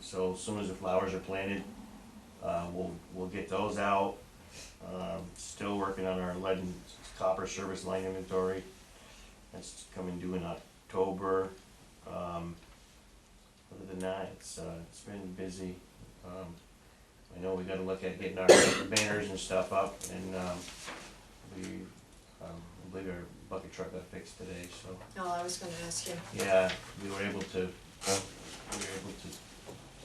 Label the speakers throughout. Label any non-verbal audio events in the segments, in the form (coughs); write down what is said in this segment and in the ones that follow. Speaker 1: So as soon as the flowers are planted, uh, we'll, we'll get those out. Um, still working on our lead and copper service line inventory. That's coming due in October. Um, other than that, it's, uh, it's been busy. Um, I know we gotta look at getting our banners and stuff up and, um, we, um, I believe our bucket truck got fixed today, so.
Speaker 2: No, I was gonna ask you.
Speaker 1: Yeah, we were able to, we were able to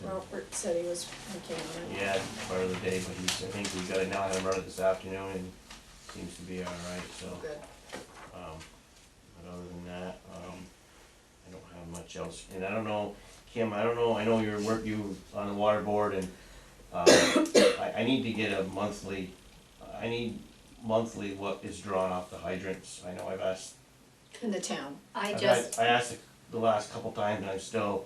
Speaker 2: Robert said he was working on it.
Speaker 1: yeah, part of the day, but he's, I think we got it now, had him run it this afternoon, and seems to be all right, so,
Speaker 2: Good.
Speaker 1: um, but other than that, um, I don't have much else, and I don't know, Kim, I don't know, I know you're work, you on the water board, and, um, (coughs) I, I need to get a monthly, I need monthly what is drawn off the hydrants, I know I've asked
Speaker 2: In the town.
Speaker 3: I
Speaker 1: I've
Speaker 3: just,
Speaker 1: asked- I asked it the last couple times and I'm still,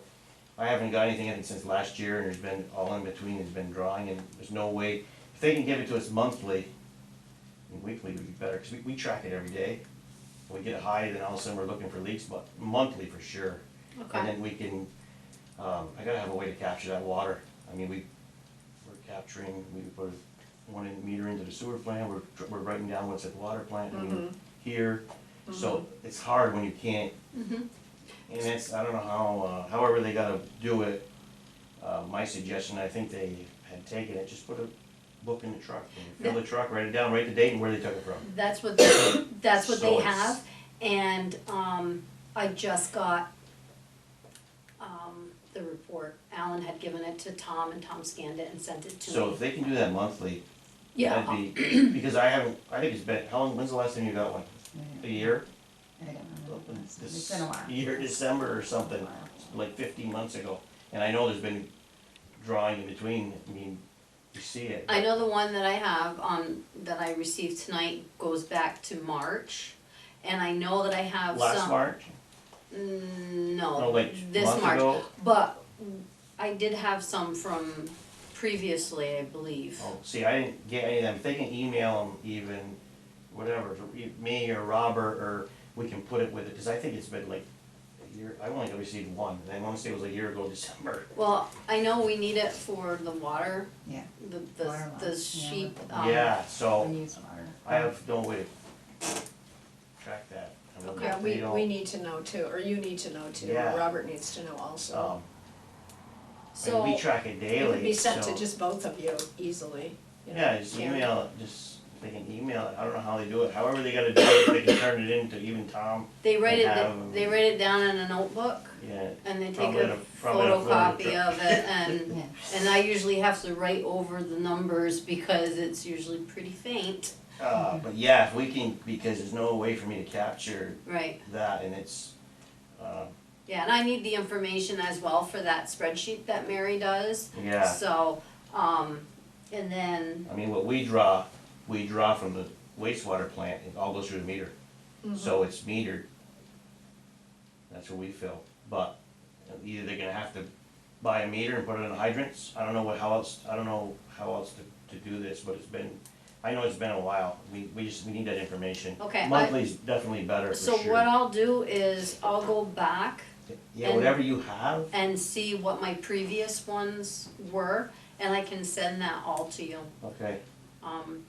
Speaker 1: I haven't got anything, I think, since last year and there's been, all in between has been drawing and there's no way, if they can give it to us monthly, and weekly would be better, cause we, we track it every day. We get it high, then all of a sudden we're looking for leaks, but monthly for sure. And
Speaker 3: okay,
Speaker 1: then we can, um, I gotta have a way to capture that water. I mean, we, we're capturing, we put one in- meter into the sewer plant, we're, dr- we're writing down what's at the water plant, I mean, here. So it's hard when you can't. And it's, I don't know how, uh, however they gotta do it. Uh, my suggestion, I think they had taken it, just put a book in the truck, and fill the truck, write it down, write the date and where they took it from.
Speaker 3: that's what, they- that's what
Speaker 1: So
Speaker 3: they
Speaker 1: it's-
Speaker 3: have, and, um, I just got, um, the report, Alan had given it to Tom, and Tom scanned it and sent it to me.
Speaker 1: So if they can do that monthly,
Speaker 3: Yeah, I'll-
Speaker 1: that'd be,
Speaker 3: (clears throat)
Speaker 1: because I haven't, I think it's been, how long, when's the last time you got one? A year?
Speaker 4: I don't remember. It's
Speaker 1: this
Speaker 4: been a while.
Speaker 1: year, December or something, like fifteen months ago. And I know there's been drawing in between, I mean, you see it.
Speaker 3: I know the one that I have, um, that I received tonight goes back to March, and I know that I have some.
Speaker 1: Last March,
Speaker 3: Mm,
Speaker 1: no,
Speaker 3: No,
Speaker 1: like
Speaker 3: this
Speaker 1: month
Speaker 3: March,
Speaker 1: ago,
Speaker 3: but I did have some from previously, I believe.
Speaker 1: oh, see, I didn't get any of them, if they can email them even, whatever, to e- me or Robert, or we can put it with it, cause I think it's been like a year, I only received one, and I wanna say it was a year ago (laughs) December.
Speaker 3: Well, I know we need it for the water,
Speaker 4: Yeah.
Speaker 3: the, the,
Speaker 4: Water
Speaker 3: the
Speaker 4: lines, yeah.
Speaker 3: sheep,
Speaker 2: Oh.
Speaker 3: um,
Speaker 1: Yeah, so,
Speaker 4: We use water.
Speaker 1: Oh. I have no way to track that. I mean,
Speaker 3: Okay.
Speaker 2: Yeah,
Speaker 1: they
Speaker 2: we,
Speaker 1: don't-
Speaker 2: we need to know too, or you need to know too,
Speaker 1: Yeah.
Speaker 2: or Robert needs to know also.
Speaker 1: Um, I mean,
Speaker 3: so,
Speaker 1: we track it daily,
Speaker 2: It would be sent
Speaker 1: so-
Speaker 2: to just both of you easily, you know.
Speaker 1: Yeah, just
Speaker 2: Karen.
Speaker 1: email it, just, they can email it, I don't know how they do it, however they gotta do it, they can turn it into even Tom,
Speaker 3: they write
Speaker 1: have-
Speaker 3: it, they write it down in a notebook,
Speaker 1: yeah.
Speaker 3: and they take
Speaker 1: Probably in
Speaker 3: a
Speaker 1: a- probably in a folder.
Speaker 3: photocopy of it,
Speaker 1: (laughs)
Speaker 3: and,
Speaker 4: Yeah.
Speaker 3: and I usually have to write over the numbers because it's usually pretty faint,
Speaker 1: Uh, but yeah, if we can, because there's no way for me to capture
Speaker 3: right?
Speaker 1: that, and it's, uh,
Speaker 3: Yeah, and I need the information as well for that spreadsheet that Mary does,
Speaker 1: yeah,
Speaker 3: so, um, and then,
Speaker 1: I mean, what we draw, we draw from the wastewater plant, it all goes through the meter,
Speaker 3: Mm-hmm.
Speaker 1: so it's metered. That's what we fill, but either they're gonna have to buy a meter and put it in hydrants, I don't know what, how else, I don't know how else to, to do this, but it's been, I know it's been a while, we, we just, we need that information.
Speaker 3: Okay, I-
Speaker 1: Monthly's definitely better for
Speaker 3: so
Speaker 1: sure.
Speaker 3: what I'll do is I'll go back
Speaker 1: Yeah, whatever you have,
Speaker 3: and see what my previous ones were, and I can send that all to you.
Speaker 1: okay,
Speaker 3: Um,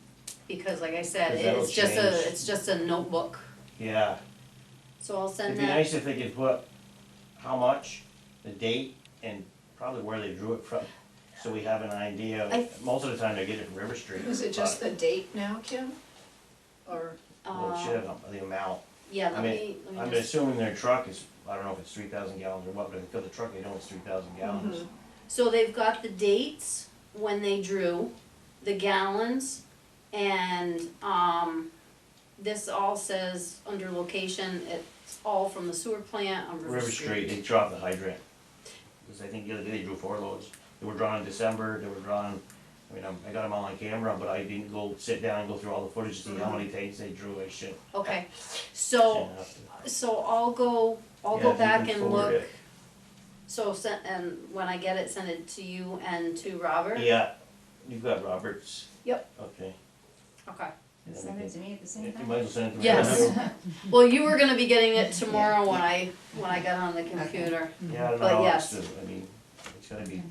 Speaker 3: because like I said,
Speaker 1: 'Cause that'll
Speaker 3: it's just a,
Speaker 1: change.
Speaker 3: it's just a notebook,
Speaker 1: yeah,
Speaker 3: so I'll
Speaker 1: it'd
Speaker 3: send
Speaker 1: be
Speaker 3: that,
Speaker 1: nice if they could put how much, the date, and probably where they drew it from, so we have an idea,
Speaker 3: I-
Speaker 1: most of the time they get it from River Street.
Speaker 2: Is it just
Speaker 1: but-
Speaker 2: the date now, Kim? Or,
Speaker 1: Well, it should
Speaker 3: uh,
Speaker 1: have the amount,
Speaker 3: yeah,
Speaker 1: I
Speaker 3: let
Speaker 1: mean,
Speaker 3: me, let
Speaker 1: I'm
Speaker 3: me just,
Speaker 1: assuming their truck is, I don't know if it's three thousand gallons or what, but if they fill the truck, they know it's three thousand gallons.
Speaker 2: Mm-hmm.
Speaker 3: so they've got the dates when they drew, the gallons, and, um, this all says under location, it's all from the sewer plant on
Speaker 1: River Street, they dropped the hydrant, cause I think the other day they drew four loads, they were drawn in December, they were drawn, I mean, I'm- I got them all on camera, but I didn't go sit down and go through all the footage to see
Speaker 2: Mm-hmm.
Speaker 1: how many takes they drew, I should,
Speaker 3: Okay, so,
Speaker 1: shouldn't have to.
Speaker 3: so I'll go, I'll
Speaker 1: Yeah,
Speaker 3: go
Speaker 1: if you
Speaker 3: back
Speaker 1: can
Speaker 3: and
Speaker 1: forward
Speaker 3: look,
Speaker 1: it.
Speaker 3: so send, and when I get it, send it to you and to Robert?
Speaker 1: Yeah, you've got Roberts.
Speaker 3: Yep.
Speaker 1: Okay.
Speaker 3: Okay,
Speaker 4: You Send it to me at the same
Speaker 1: You
Speaker 4: time?
Speaker 1: might as well send it to me.
Speaker 3: Yes. well, you were gonna be getting it tomorrow when I, when I got on the computer,
Speaker 1: Yeah, I don't know
Speaker 3: But
Speaker 1: how else
Speaker 3: yes.
Speaker 1: to, I mean, it's gotta be